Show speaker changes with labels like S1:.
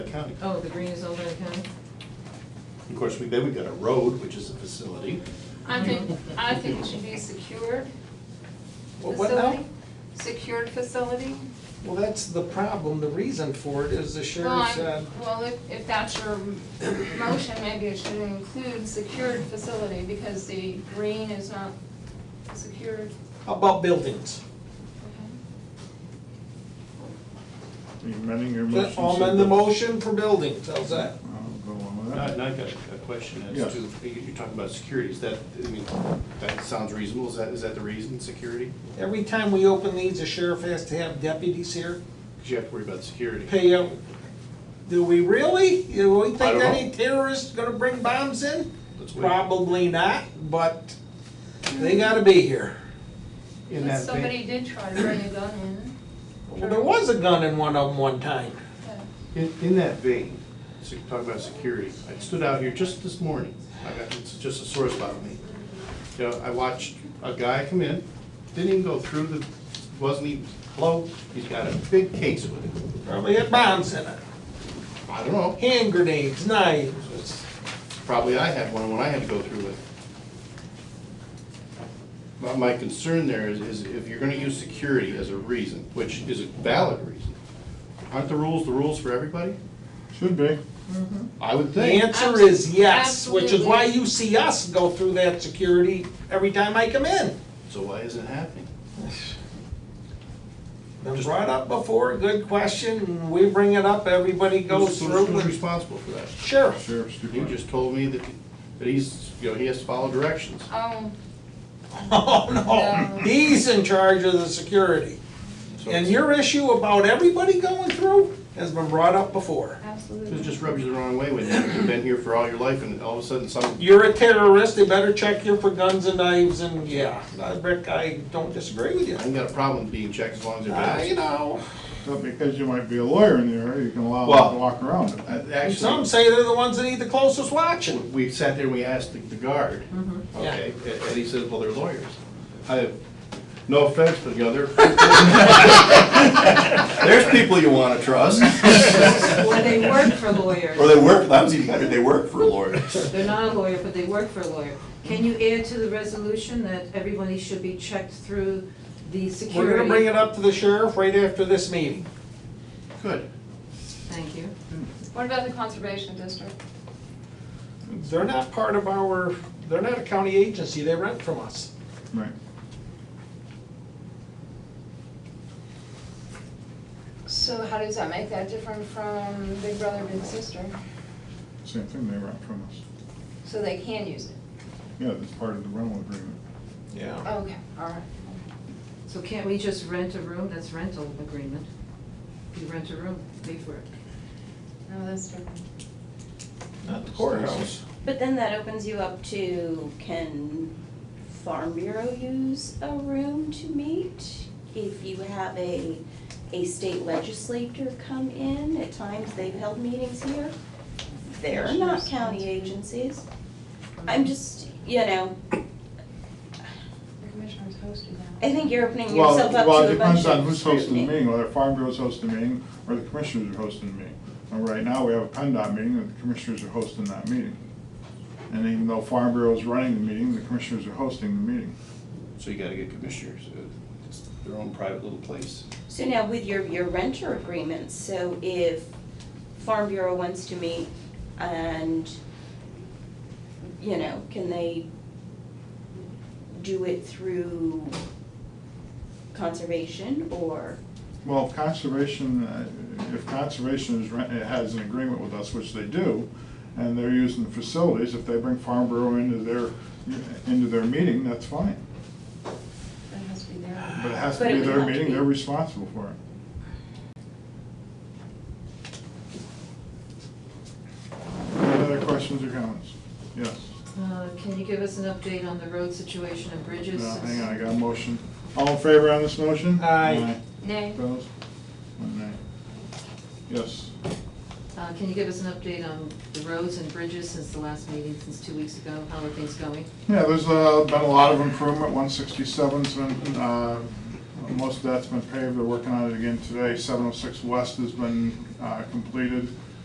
S1: County.
S2: Oh, the green is Old Lake County?
S1: Of course, we, then we got a road, which is a facility.
S3: I think, I think it should be secured
S4: Well, what now?
S3: facility. Secured facility.
S4: Well, that's the problem, the reason for it is the
S3: Well,
S4: sheriff
S3: I-
S4: said,
S3: Well, if, if that's your motion, maybe it should include secured facility because the green is not secured.
S4: how about buildings?
S5: You amending your motion?
S4: I'll
S5: so
S4: amend the
S5: that-
S4: motion for buildings, how's that?
S5: I'll go along with
S1: Now,
S5: that.
S1: now I got a a question
S5: Yeah.
S1: as to, you- you're talking about security, is that, I mean, that sounds reasonable, is that, is that the reason, security?
S4: Every time we open these, the sheriff has to have deputies here,
S1: Because you have to worry about security.
S4: pay out. Do we really? Do we
S1: I
S4: think
S1: don't know.
S4: any terrorist's gonna bring bombs in?
S1: Let's wait.
S4: Probably not, but they gotta be here.
S1: In
S3: But
S1: that
S3: somebody
S1: vein,
S3: did try to bring a gun in.
S4: Well, there was a gun in one of them one time.
S3: but-
S1: in, in that vein, so you talk about security, I stood out here just this morning, I got, it's just a sore spot on me. You know, I watched a guy come in, didn't even go through the, wasn't even, hello, he's got a big case with him.
S4: Probably had bombs in it,
S1: I don't know,
S4: hand grenades, knives.
S1: It's- Probably I had one when I had to go through it. My, my concern there is, is if you're gonna use security as a reason, which is a valid reason, aren't the rules the rules for everybody?
S5: Should be.
S1: I would
S4: The
S1: think.
S4: answer is yes, which is
S3: Absolutely.
S4: why you see us go through that security every time I come in.
S1: So why isn't it happening?
S4: Been brought up before, good question, and we bring it up, everybody
S1: Who's-
S4: goes through
S1: Who's
S4: with
S1: responsible for that?
S4: sheriff.
S5: Sheriff's
S1: You
S5: department.
S1: just told me that, that he's, you know, he has to follow directions.
S3: Oh,
S4: Oh, no,
S3: No.
S4: he's in charge of the security.
S1: So
S4: And
S1: it's-
S4: your issue about everybody going through has been brought up before.
S1: It
S3: absolutely.
S1: just rubs you the wrong way when you've been here for all your life and all of a sudden some,
S4: You're a terrorist, they better check you for guns and knives and, yeah, I- Rick, I don't disagree with you.
S1: I ain't got a problem being checked as long as they're.
S4: I know,
S5: But because you might be a lawyer in the area, you can allow
S1: Well-
S5: them to walk around it.
S1: Uh,
S4: some
S1: Actually,
S4: say they're the ones that need the closest watching.
S1: we sat there and we asked the- the guard,
S4: Yeah.
S1: okay, and and he says, well, they're lawyers. I have, no offense, but the other. There's people you wanna trust,
S2: Or they work for lawyers.
S6: Or they work, that was even better, they work for lawyers.
S2: They're not a lawyer, but they work for a lawyer.
S7: Can you add to the resolution that everybody should be checked through the
S4: We're
S7: security?
S4: gonna bring it up to the sheriff right after this meeting.
S1: good.
S2: Thank you.
S3: What about the conservation district?
S4: They're not part of our, they're not a county agency, they rent from us.
S5: Right.
S3: So how does that make that different from Big Brother Big Sister?
S5: Same thing, they rent from us.
S3: So they can use it?
S5: Yeah, that's part of the rental agreement.
S4: Yeah.
S3: Okay, all right.
S7: So can't we just rent a room? That's rental agreement. You rent a room, pay for it.
S3: No, that's different.
S4: Not the courthouse.
S8: But then that opens you up to can Farm Bureau use a room to meet? If you have a, a state legislator come in, at times they've held meetings here. They're not county agencies. I'm just, you know,
S3: The commissioner's hosting that.
S8: I think you're opening
S5: Well,
S8: yourself up
S5: Well,
S8: to
S5: it
S8: a bunch of
S5: depends on who's hosting the
S8: scrutiny.
S5: meeting, whether Farm Bureau's hosting the meeting or the commissioners are hosting the meeting. And right now, we have a PennDOT meeting and the commissioners are hosting that meeting. And even though Farm Bureau's running the meeting, the commissioners are hosting the meeting.
S1: So you gotta get commissioners, uh, it's their own private little place.
S8: So now with your, your renter agreements, so if Farm Bureau wants to meet and, you know, can they do it through conservation or?
S5: Well, if conservation, uh, if conservation is, re- it has an agreement with us, which they do, and they're using the facilities, if they bring Farm Bureau into their, into their meeting, that's fine.
S3: That has to be there.
S5: But it has to
S8: But it
S5: be
S8: would
S5: their
S8: have to
S5: meeting,
S8: be-
S5: they're responsible for it. Any other questions or comments? Yes.
S2: Uh, Can you give us an update on the road situation and bridges?
S5: No, hang on, I got a motion. All in favor on this motion?
S4: Aye.
S3: Nay.
S5: Opposed? One nay. Yes.
S2: Uh, Can you give us an update on the roads and bridges since the last meeting, since two weeks ago? How are things going?
S5: Yeah, there's uh, been a lot of improvement, 167's been, uh, oh most of that's been paved, they're working on it again today. 706 West has been uh, completed,